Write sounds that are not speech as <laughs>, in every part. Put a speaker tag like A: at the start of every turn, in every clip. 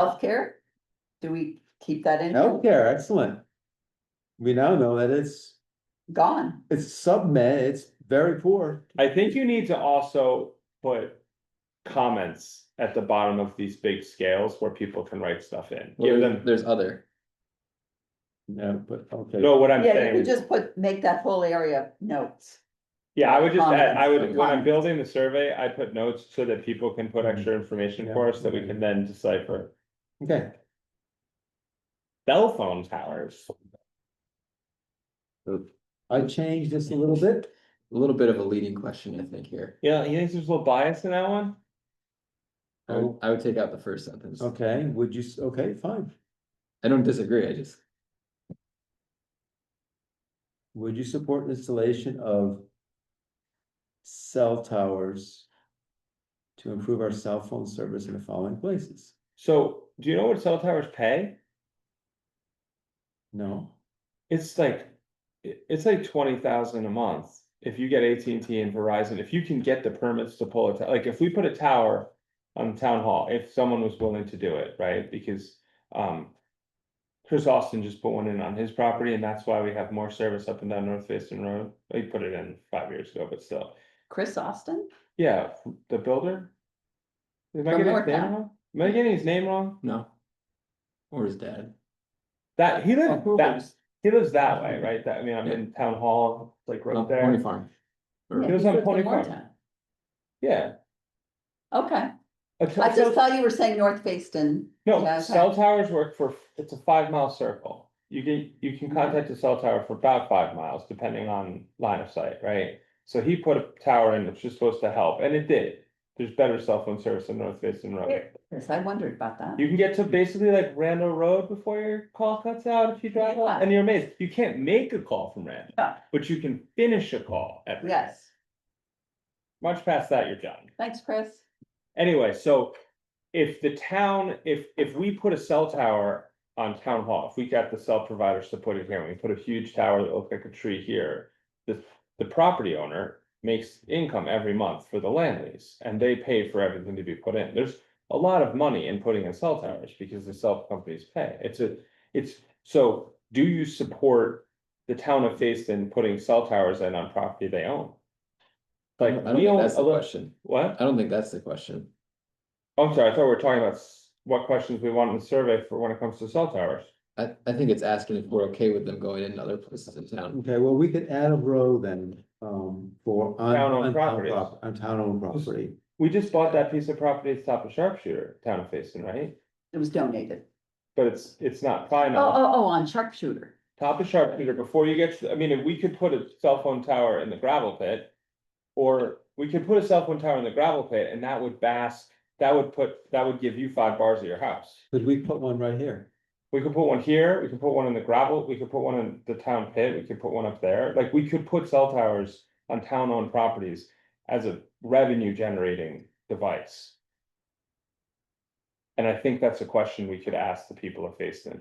A: Healthcare? Do we keep that in?
B: Healthcare, excellent. We now know that it's,
A: Gone.
B: it's submed, it's very poor.
C: I think you need to also put comments at the bottom of these big scales where people can write stuff in.
D: Well,
C: Give
D: there-
C: them,
D: There's other,
B: Yeah, but, okay,
C: no, what I'm
A: Yeah, you could
C: saying,
A: just put, make that whole area notes.
C: yeah, I would just add, I
A: Comments,
C: would, when I'm
A: comments.
C: building the survey, I put notes so that people can
D: Mm-hmm.
C: put extra information
B: Yeah.
C: for us that we can then decipher.
B: okay.
C: Cell phone towers,
B: I changed this a little bit.
D: a little bit of a leading question, I think, here.
C: yeah, you think there's a little bias in that one?
D: I
C: Oh.
D: would, I would take out the first sentence.
B: Okay, would you, s- okay, fine.
D: I don't disagree, I just,
B: Would you support installation of cell towers to improve our cell phone service in the following places?
C: So, do you know what cell towers pay?
B: No,
C: It's like, it- it's like twenty thousand a month. If you get AT&T and Verizon, if you can get the permits to pull a tower, like if we put a tower on town hall, if someone was willing to do it, right? Because um Chris Austin just put one in on his property and that's why we have more service up and down North Facein Road. He put it in five years ago, but still.
A: Chris Austin?
C: Yeah, the builder. Am I
A: From
C: getting his name
A: Moretown.
C: wrong? Am I getting his name wrong?
D: no. Or his dad.
C: That, he
D: Oh,
C: lives that,
D: That's
C: he lives that way, right? That, I mean, I'm in town hall, like
D: Oh,
C: right there.
D: Pony farm. Or-
A: Yeah,
C: It was
A: he
C: on
A: lives in
C: Pony Farm.
A: Moretown.
C: Yeah.
A: Okay,
C: A
A: I
C: cell-
A: just thought you were saying North Facein. Yeah,
C: No,
A: okay.
C: cell towers work for, it's a five mile circle. You can, you can contact a cell tower for about five miles, depending on line of sight, right? So he put a tower in, which is supposed to help, and it did. There's better cell phone service in North Basin Road.
A: Yes, I wondered about that.
C: You can get to basically like Randall Road before your call cuts out if you drive
A: Yeah.
C: up, and you're amazed. You can't make a call from Randall,
A: Yeah.
C: but you can finish a call at. Randall.
A: Yes,
C: Much past that, you're done.
A: thanks, Chris.
C: Anyway, so if the town, if, if we put a cell tower on town hall, if we got the cell providers to put it here, and we put a huge tower that looked like a tree here. The, the property owner makes income every month for the land lease, and they pay for everything to be put in. There's a lot of money in putting in cell towers because the cell companies pay. It's a, it's, so do you support the town of Facein putting cell towers in on property they own?
D: I
C: Like,
D: don't
C: we
D: think
C: own,
D: that's
C: a
D: the
C: lo-
D: question.
C: what?
D: I don't think that's the question.
C: I'm sorry, I thought we were talking about s- what questions we want in the survey for when it comes to cell towers.
D: I, I think it's asking if we're okay with them going in other places in town.
B: okay, well, we could add a row then, um, for. on-
C: Town-owned
B: on town
C: properties.
B: prop- On town owned property.
C: We just bought that piece of property at the top of Sharpshooter, town of Facein, right?
A: It was donated.
C: But it's, it's not
A: Oh,
C: final.
A: oh, oh, on sharpshooter.
C: Top of Sharpshooter, before you get, to- I mean, if we could put a cell phone tower in the gravel pit. Or we could put a cell phone tower in the gravel pit and that would bask, that would put, that would give you five bars of your house.
B: Could we put one right here?
C: We could put one here, we could put one in the gravel, we could put one in the town pit, we could put one up there, like, we could put cell towers on town-owned properties as a revenue-generating device. And I think that's a question we could ask the people of Facein.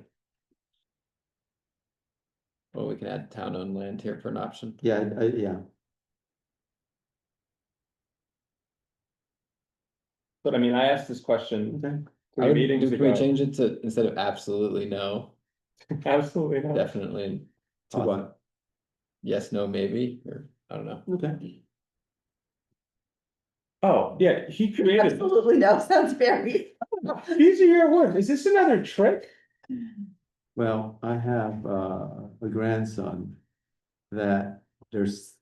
D: Well, we can add town owned land here for an option.
B: Yeah, I- I- yeah.
C: But I mean, I asked this question
B: Okay.
D: I
C: three
D: would-
C: meetings
D: Can we
C: ago.
D: change it to, instead of absolutely no,
C: Absolutely not.
D: definitely
B: To what?
D: yes, no, maybe, or I don't know.
B: Okay.
C: Oh, yeah, he created, this.
A: Absolutely no, <laughs> sounds very.
C: these are your words, is this another trick?
B: Well, I have uh, a grandson that there's.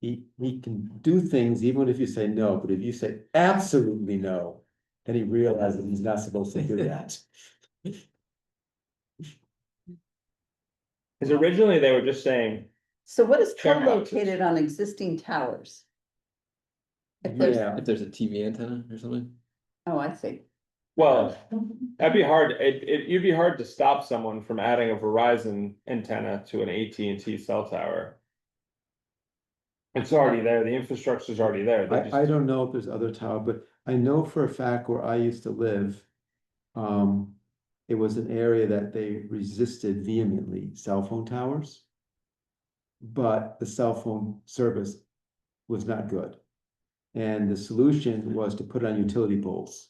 B: He, he can do things even if you say no, but if you say absolutely no, then he realizes he's not supposed to do that.
C: Cause originally they were just saying,
A: So what is
C: Fair amount.
A: co-located on existing towers? <laughs> If there's,
B: Yeah,
D: If there's a TV antenna or something.
A: oh, I see.
C: well, That'd be hard, it, it, you'd be hard to stop someone from adding a Verizon antenna to an AT&T cell tower. It's already there, the infrastructure's already there, they
B: I, I
C: just,
B: don't know if there's other tower, but I know for a fact where I used to live. Um, it was an area that they resisted vehemently, cell phone towers. But the cell phone service was not good. And the solution was to put on utility poles.